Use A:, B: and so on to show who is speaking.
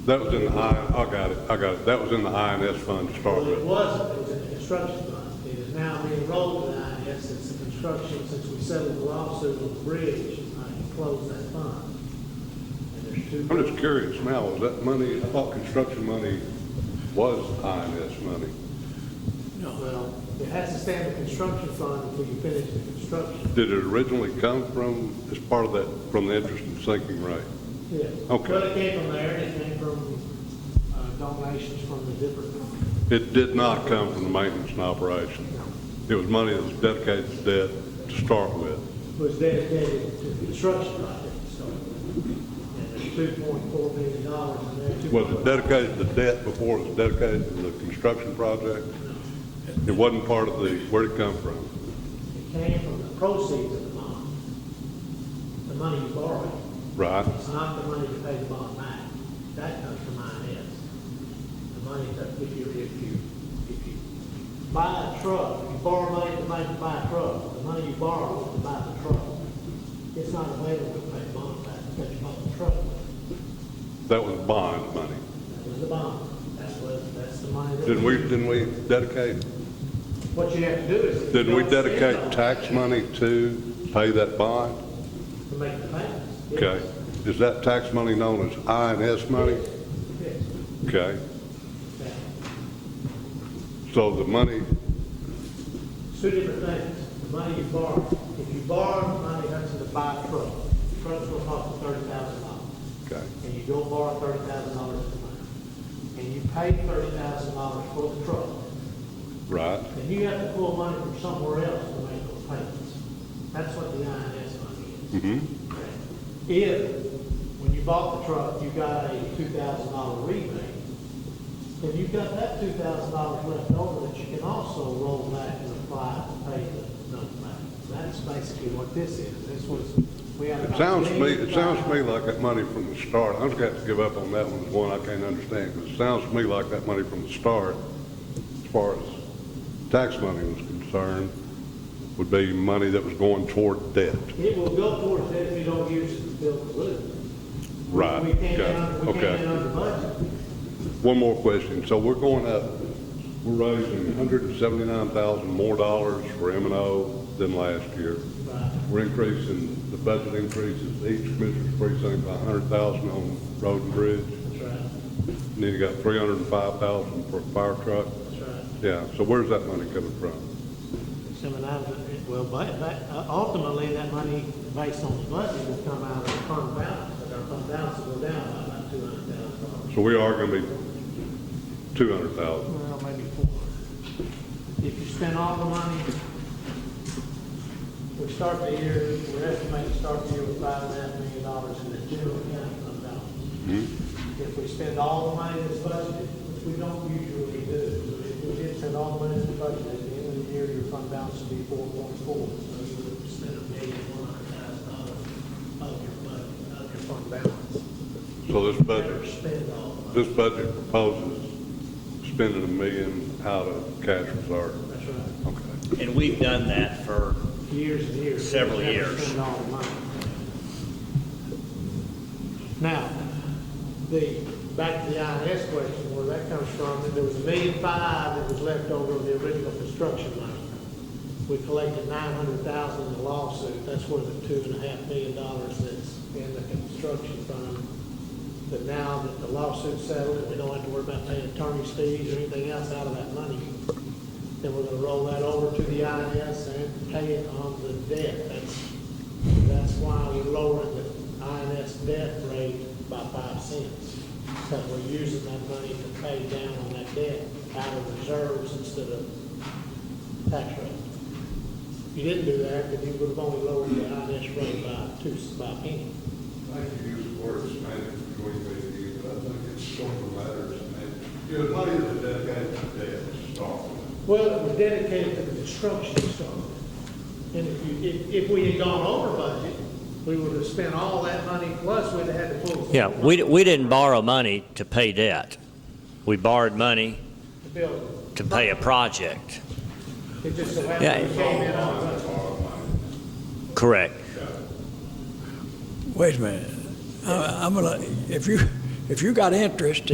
A: That was in the I, I got it, I got it. That was in the INS fund to start
B: Well, it
A: with.
B: was, it was a construction fund. It is now being rolled to the INS since the construction, since we settled the lawsuit on the bridge, I closed that fund. And there's
A: I'm
B: two,
A: just curious now, was that money, I thought construction money was INS money.
B: well, it has to stand in construction fund until you finish the construction.
A: Did it originally come from, as part of that, from the interest and sinking rate?
B: Yeah.
A: Okay.
B: Well, it came from there, and it came from uh, donations from the different,
A: It did not come from the maintenance and operation. It was money that was dedicated to debt to start with.
B: was dedicated to construction projects, so. And there's two point four million dollars in there.
A: Was it dedicated to debt before it was dedicated to the construction project? It wasn't part of the, where'd it come from?
B: It came from the proceeds of the bond, the money you borrowed.
A: Right?
B: It's not the money to pay the bond back. That comes from INS. The money that if you, if you, if you buy a truck, if you borrow money to make, buy a truck, the money you borrow is to buy the truck. It's not available to pay the bond back, because you bought the truck.
A: That was bond money.
B: That was the bond. That's what, that's the money. that-
A: Didn't we, didn't we dedicate,
B: What you have to do is. if you
A: didn't we
B: don't spend
A: dedicate
B: it,
A: tax money to pay that bond?
B: To make the payments. yes.
A: Okay. Is that tax money known as INS money?
B: Yes.
A: Okay.
B: Yeah.
A: So the money,
B: Two different things, the money you borrow. If you borrow money, that's to buy a truck. The Trucks will cost thirty thousand dollars.
A: okay.
B: And you go borrow thirty thousand dollars of money. And you pay thirty thousand dollars for the truck.
A: Right,
B: And you have to pull money from somewhere else to make those payments. That's what the INS money is.
A: Mm-hmm.
B: If, when you bought the truck, you got a two thousand dollar rebate, then you've got that two thousand dollars left over that you can also roll back and apply to pay the note back. That's basically what this is. This was, we had.
A: It
B: about
A: sounds to me, it
B: $85,000.
A: sounds to me like that money from the start, I'm just gonna have to give up on that one, it's one I can't understand, because it sounds to me like that money from the start, as far as tax money was concerned, would be money that was going toward debt.
B: It will go towards that if you don't use it to build the loop.
A: Right,
B: We came in
A: okay,
B: under, we came
A: okay.
B: in under budget.
A: One more question, so we're going up, we're raising hundred and seventy-nine thousand more dollars for M and O than last year.
B: Right.
A: We're increasing, the budget increases each commissioner's precinct by hundred thousand on road and bridge.
B: That's right,
A: And then you got three hundred and five thousand for a fire truck.
B: that's right.
A: Yeah, so where's that money coming from?
B: Some of that, well, but, but uh, ultimately, that money, based on the budget, will come out of the fund balance, but our fund balance will go down by about two hundred thousand dollars.
A: So we are gonna be two hundred thousand.
B: Well, maybe four. If you spend all the money, we start the year, we're estimating to start the year with five and a half million dollars in the general county fund balance. If we spend all the money that's budgeted, which we don't usually do, but if we did spend all the money that's budgeted, at the end of the year, your fund balance would be four point four. So you would spend a million, one hundred thousand dollars of your budget, of your fund balance.
A: So this
B: Never
A: budget,
B: spend all the money.
A: this budget proposes spending a million out of cash reserve.
B: That's right.
A: Okay.
C: And we've done that for,
B: years and years.
C: Several
B: Never
C: years.
B: spend all the money. Now, the, back to the INS question, where that comes from, that there was a million five that was left over of the original construction money. We collected nine hundred thousand in the lawsuit, that's where the two and a half million dollars that's in the construction fund. But now that the lawsuit's settled, and we don't have to worry about paying attorney's fees or anything else out of that money, then we're gonna roll that over to the INS and pay it on the debt. That's, that's why we lowered the INS debt rate by five cents. Because we're using that money to pay down on that debt out of reserves instead of tax rate. If you didn't do that, then you would have only lowered the INS rate by two, by a penny.
A: I think you use the word semantics between me and you, but I think it's sort of matters semantics. You know, money that's dedicated to debt to start with.
B: Well, it was dedicated to the construction stone. And if you, if, if we had gone over budget, we would have spent all that money, plus we'd have had to pull.
C: yeah, we, we didn't borrow money to pay debt. We borrowed money
B: The building.
C: to pay a project.
B: It just so
C: Yeah.
B: happened we came in on budget.
C: Correct.
D: Wait a minute. I- I'm gonna, if you, If you got interest